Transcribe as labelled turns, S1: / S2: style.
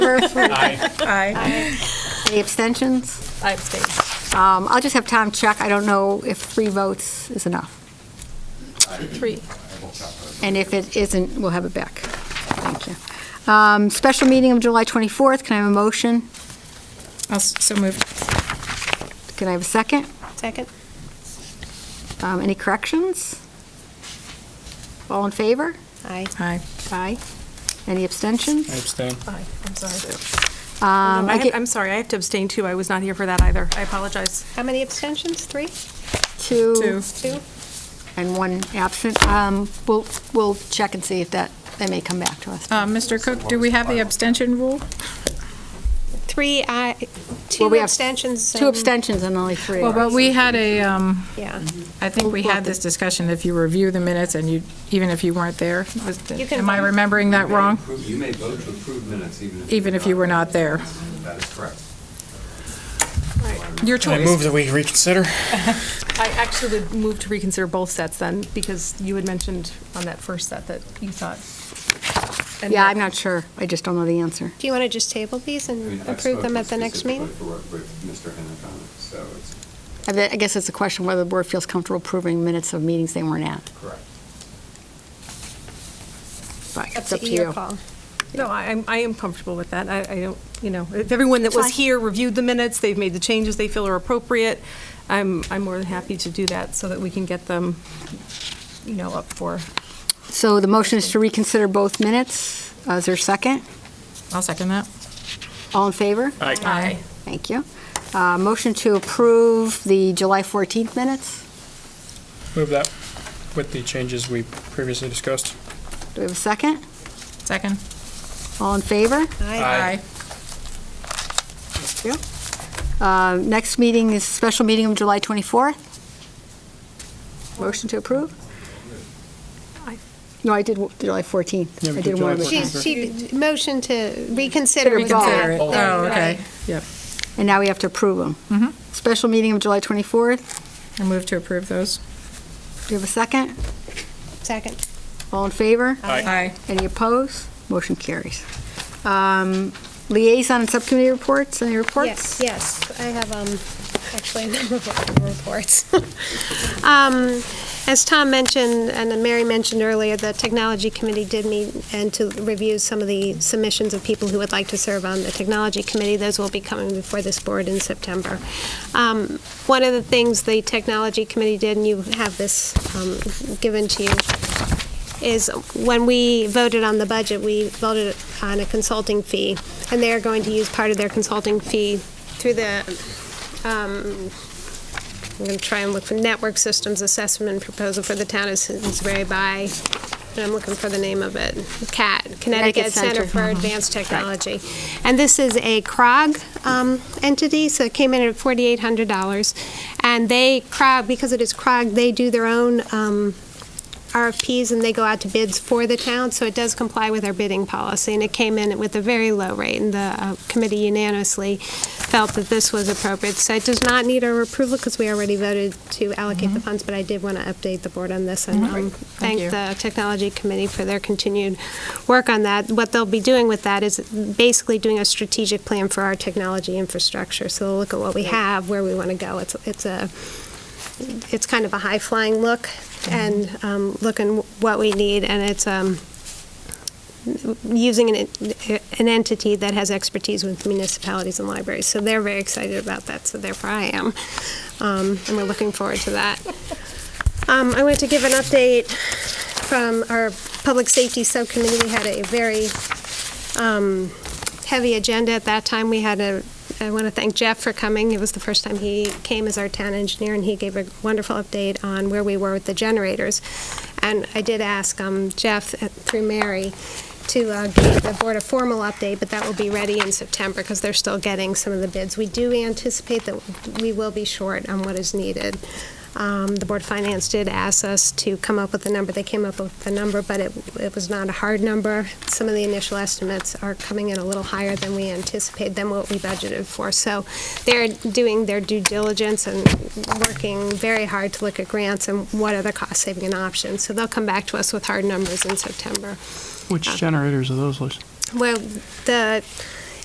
S1: Murphy?
S2: Aye.
S1: Aye. Any abstentions?
S3: I abstain.
S1: Um, I'll just have Tom check. I don't know if three votes is enough.
S3: Three.
S1: And if it isn't, we'll have it back. Thank you. Um, Special meeting of July 24th. Can I have a motion?
S4: I'll s- So moved.
S1: Can I have a second?
S3: Second?
S1: Um, Any corrections? All in favor?
S3: Aye.
S4: Aye.
S1: Aye. Any abstentions?
S2: I abstain.
S3: Aye, I'm sorry.
S1: Um, I get
S5: Oh, I'm sorry, I have to abstain too. I was not here for that either. I apologize.
S3: How many abstentions? Three?
S1: two
S4: Two.
S3: Two?
S1: and one absent. Um, We'll, we'll check and see if that, they may come back to us.
S4: Uh, Mr. Cook, do we have the abstention rule?
S3: Three, aye,
S1: Well,
S3: two
S1: we have
S3: abstentions.
S1: Two
S3: and-
S1: abstentions and only three.
S4: Well, but we had a, um,
S3: Yeah.
S4: I think we had this discussion, if you review the minutes and you, even if you weren't there, was the-
S3: You can
S4: am I
S3: vote.
S4: remembering that wrong?
S6: You may vote to approve minutes even if.
S4: Even if you were not there.
S6: That is correct.
S4: Your
S2: I
S4: choice.
S2: move that we reconsider.
S5: I actually would move to reconsider both sets then, because you had mentioned on that first set that you thought. and
S1: Yeah,
S5: that-
S1: I'm not sure. I just don't know the answer.
S3: Do you want to just table these
S6: I mean,
S3: and
S6: I've
S3: approve them
S6: spoken
S3: at the next
S6: specifically
S3: meeting?
S6: for- With Mr. Hennick on it, so it's
S1: I bet- I guess it's a question whether the board feels comfortable approving minutes of meetings they weren't at.
S6: correct.
S1: But
S3: Up
S1: it's up to
S3: your
S1: you.
S3: E call.
S5: No, I, I'm- I am comfortable with that. I, I don't, you know, if everyone that was
S1: Fine.
S5: here reviewed the minutes, they've made the changes they feel are appropriate, I'm, I'm more than happy to do that so that we can get them, you know, up for.
S1: So the motion is to reconsider both minutes. Uh, Is there a second?
S4: I'll second that.
S1: All in favor?
S4: Aye.
S1: Thank you. Uh, Motion to approve the July 14th minutes.
S2: Move that with the changes we previously discussed.
S1: Do we have a second?
S4: Second?
S1: All in favor?
S3: Aye.
S1: Uh, Next meeting is special meeting of July 24th. Motion to approve?
S5: I-
S1: No, I did w- July 14th.
S2: Yeah, we
S1: I
S2: did
S1: did one
S2: July
S1: of the-
S2: 14th.
S3: She, she, motion to reconsider. was all.
S4: Reconsider it.
S2: Oh,
S4: Oh, okay. Yep.
S1: And now we have to approve them. Special meeting of July 24th.
S4: I move to approve those.
S1: Do you have a second?
S3: Second.
S1: All in favor?
S4: Aye.
S1: Any opposed? Motion carries. Um, Liaison and subcommittee reports, any
S3: Yes,
S1: reports?
S3: yes, I have, um, actually a number of reports. Um, As Tom mentioned, and then Mary mentioned earlier, the Technology Committee did meet and to review some of the submissions of people who would like to serve on the Technology Committee. Those will be coming before this board in September. Um, One of the things the Technology Committee did, and you have this um, given to you, is when we voted on the budget, we voted on a consulting fee, and they're going to use part of their consulting fee through the, um, I'm going to try and look for Network Systems Assessment Proposal for the Town of Simsbury by, and I'm looking for the name of it, CAT, Connecticut
S1: Center.
S3: Center for Advanced Technology. And this is a CROG um, entity, so it came in at $4,800. And they, CROG, because it is CROG, they do their own um, RFPs and they go out to bids for the town, so it does comply with our bidding policy. And it came in with a very low rate, and the uh, committee unanimously felt that this was appropriate. So it does not need our approval because we already voted to allocate the funds, but I did want to update the board on this and um,
S4: you.
S3: thank the technology committee for their continued work on that. What they'll be doing with that is basically doing a strategic plan for our technology infrastructure. So they'll look at what we have, where we want to go. It's, it's a, it's kind of a high-flying look and um, look and what we need, and it's um, using an an entity that has expertise with municipalities and libraries. So they're very excited about that, so therefore I am. Um, And we're looking forward to that. Um, I want to give an update from our Public Safety Subcommittee. We had a very um, heavy agenda at that time. We had a, I want to thank Jeff for coming. It was the first time he came as our town engineer, and he gave a wonderful update on where we were with the generators. And I did ask um, Jeff, uh, through Mary, to uh, give the board a formal update, but that will be ready in September, because they're still getting some of the bids. We do anticipate that we will be short on what is needed. Um, The Board of Finance did ask us to come up with a number. They came up with a number, but it, it was not a hard number. Some of the initial estimates are coming in a little higher than we anticipated, than what we budgeted for. So they're doing their due diligence and working very hard to look at grants and what are the cost-saving and options. So they'll come back to us with hard numbers in September.
S7: Which generators are those, Liz?
S3: Well, the